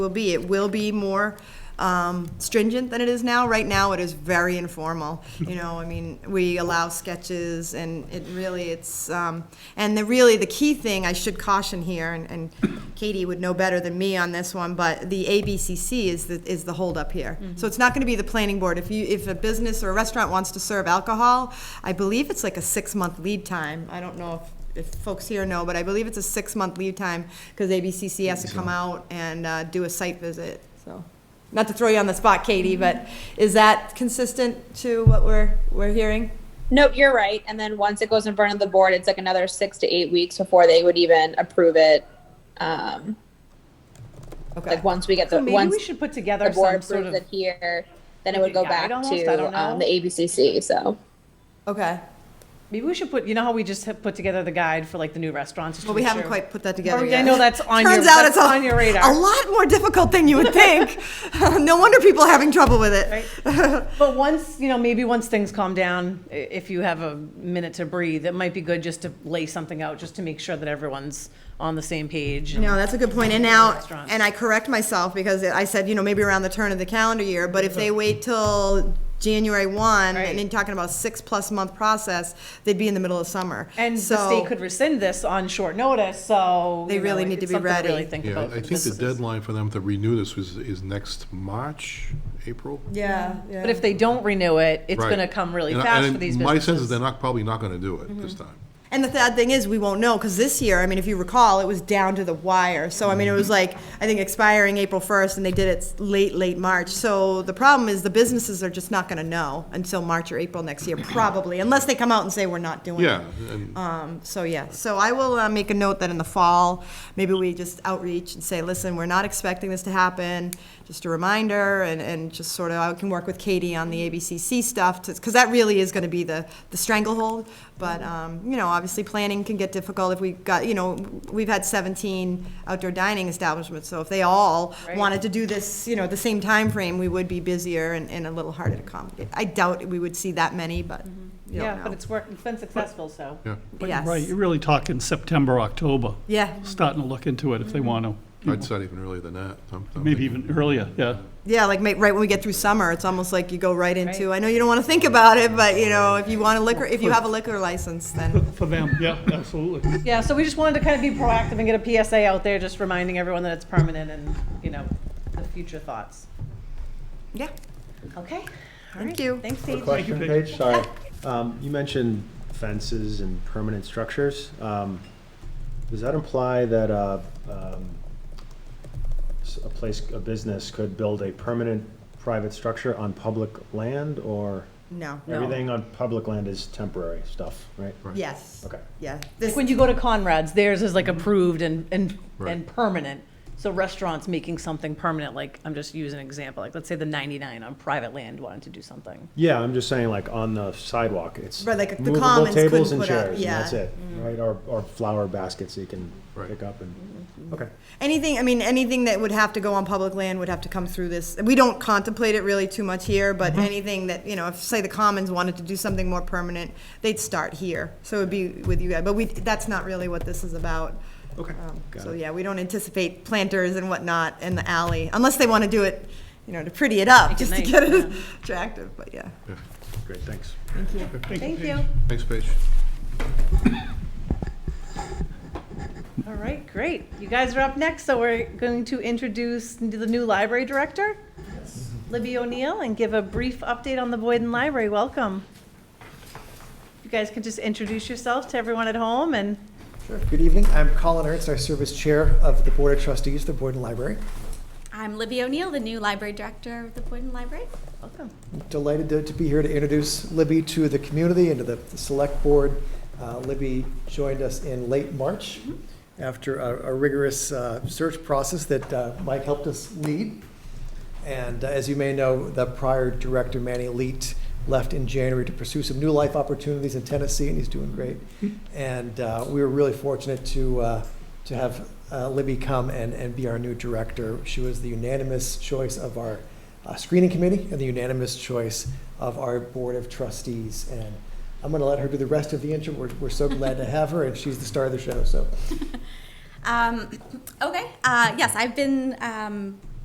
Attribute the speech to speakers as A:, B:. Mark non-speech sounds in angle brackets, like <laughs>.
A: will be. It will be more um, stringent than it is now. Right now, it is very informal. You know, I mean, we allow sketches, and it really, it's, um, and the, really, the key thing I should caution here, and- and Katie would know better than me on this one, but the ABCC is the, is the holdup here. So it's not going to be the planning board. If you, if a business or a restaurant wants to serve alcohol, I believe it's like a six-month lead time. I don't know if if folks here know, but I believe it's a six-month lead time, because ABCC has to come out and uh, do a site visit, so. Not to throw you on the spot, Katie, but is that consistent to what we're, we're hearing?
B: Nope, you're right. And then once it goes in front of the board, it's like another six to eight weeks before they would even approve it. Um,
A: Okay,
B: like once we get the
C: So maybe
B: once
C: we should put together
B: the board
C: some sort
B: approves
C: of
B: it here, then it would
C: like
B: go
C: a guide
B: back
C: almost? I don't
B: to um,
C: know.
B: the ABCC. So
A: okay.
C: maybe we should put you know how we just have put together the guide for like the new restaurants. just to
A: Well, we
C: make
A: haven't
C: sure-
A: quite put that
C: Oh,
A: together
C: yeah, I
A: yet.
C: know that's on your
A: Turns out
C: that's
A: it's a-
C: on your radar.
A: A lot more difficult than you would think. <laughs> No wonder people are having trouble with it.
C: But once, you know, maybe once things calm down, i- if you have a minute to breathe, it might be good just to lay something out, just to make sure that everyone's on the same page. and-
A: No, that's a good point. And now,
C: Restaurants.
A: and I correct myself because I said, you know, maybe around the turn of the calendar year, but if they wait till January one, and then
C: Right.
A: talking about six-plus month process, they'd be in the middle of summer.
C: And the
A: So-
C: state could rescind this on short notice, so.
A: They
C: you know,
A: really need to
C: it's
A: be
C: something
A: ready.
C: Really think
D: Yeah,
C: about.
D: I- I
C: for
D: think the
C: businesses.
D: deadline for them to renew this was, is next March, April?
A: Yeah, yeah.
C: But if they don't renew it, it's
D: Right.
C: gonna come really
D: And I-
C: fast
D: and
C: for these
D: My sense is
C: businesses. Mm-hmm.
D: they're not, probably not gonna do it this time.
A: And the sad thing is, we won't know, because this year, I mean, if you recall, it was down to the wire. So, I mean, it was
C: Mm-hmm.
A: like, I think expiring April 1st, and they did it late, late March. So the problem is, the businesses are just not going to know until March or April next year, probably, unless they come out and say, we're not doing it.
D: Yeah, and,
A: Um, so, yeah, so I will uh, make a note that in the fall, maybe we just outreach and say, listen, we're not expecting this to happen, just a reminder, and, and just sort of, I can work with Katie on the ABCC stuff, because that really is going to be the, the stranglehold. But, um, you know, obviously, planning can get difficult if we've got, you know, we've had 17 outdoor dining establishments, so if they all wanted to do this, you know, at the same time frame, we would be busier and, and a little harder to accommodate. I doubt we would see that many, but you don't
C: Yeah, but
A: know.
C: it's worked, it's been successful, so.
D: yeah,
E: But you're
A: Yes.
E: Right, you're really talking September, October,
A: Yeah.
E: starting to look into it if they want
D: I'd
E: to,
D: say even earlier than that. I'm- I'm
E: maybe
D: thinking-
E: even earlier, yeah.
A: Yeah, like ma- right when we get through summer, it's almost like you go right into, I know you don't want to think about it, but you know, if you want a liquor, if you have a liquor license, then.
E: For them, yeah, absolutely.
C: Yeah, so we just wanted to kind of be proactive and get a PSA out there, just reminding everyone that it's permanent and, you know, the future thoughts.
A: <laughs> Yeah,
C: Okay?
A: thank you.
C: Thanks,
F: A
C: Paige.
F: question,
E: Thank you, Paige.
F: Paige, sorry. Um, You mentioned fences and permanent structures. Um, Does that imply that uh, um, s- a place, a business could build a permanent private structure on public land, or
A: No,
C: No.
F: everything on public land is temporary stuff, right?
A: yes,
F: Okay.
A: yeah.
C: Like
A: This,
C: when you go to Conrad's, theirs is like approved and, and, and
D: Right.
C: permanent. So restaurants making something permanent, like, I'm just using an example, like, let's say the 99 on private land wanted to do something.
F: Yeah, I'm just saying, like, on the sidewalk, it's
A: Right, like the
F: movable
A: commons couldn't
F: tables and
A: put up-
F: chairs, and
A: yeah. Mm.
F: that's it, right? Or, or flower baskets you can
D: Right.
F: pick up and,
A: Mm-hmm.
F: okay.
A: anything, I mean, anything that would have to go on public land would have to come through this. We don't contemplate it really too much here, but
F: Mm-hmm.
A: anything that, you know, if, say, the Commons wanted to do something more permanent, they'd start here. So it'd be with you guys, but we, that's not really what this is about.
F: Okay.
A: Um,
F: Got
A: So,
F: it.
A: yeah, we don't anticipate planters and whatnot in the alley, unless they want to do it, you know, to pretty it up,
C: Make it
A: just to
C: nice,
A: get it attractive, but yeah.
F: Great, thanks.
C: Thank you.
D: Thanks, Paige.
C: All right, great. You guys are up next, so we're going to introduce the new library director, Libby O'Neill, and give a brief update on the Boyden Library. Welcome. You guys can just introduce yourself to everyone at home and
G: Sure. Good evening. I'm Colin Ernst. I serve as chair of the Board of Trustees, the Boyden Library.
H: I'm Libby O'Neill, the new library director of the Boyden Library.
C: welcome.
G: Delighted to, to be here to introduce Libby to the community and to the, the select board. Uh, Libby joined us in late March after a, a rigorous uh, search process that uh, Mike helped us lead. And uh, as you may know, the prior director, Manny Leet, left in January to pursue some new life opportunities in Tennessee, and he's doing great. And uh, we were really fortunate to, uh, to have uh, Libby come and, and be our new director. She was the unanimous choice of our uh, screening committee and the unanimous choice of our board of trustees. And I'm going to let her do the rest of the intro. We're, we're so glad to have her, and she's the star of the show. So
H: <clears throat> Um, okay, uh, yes, I've been um,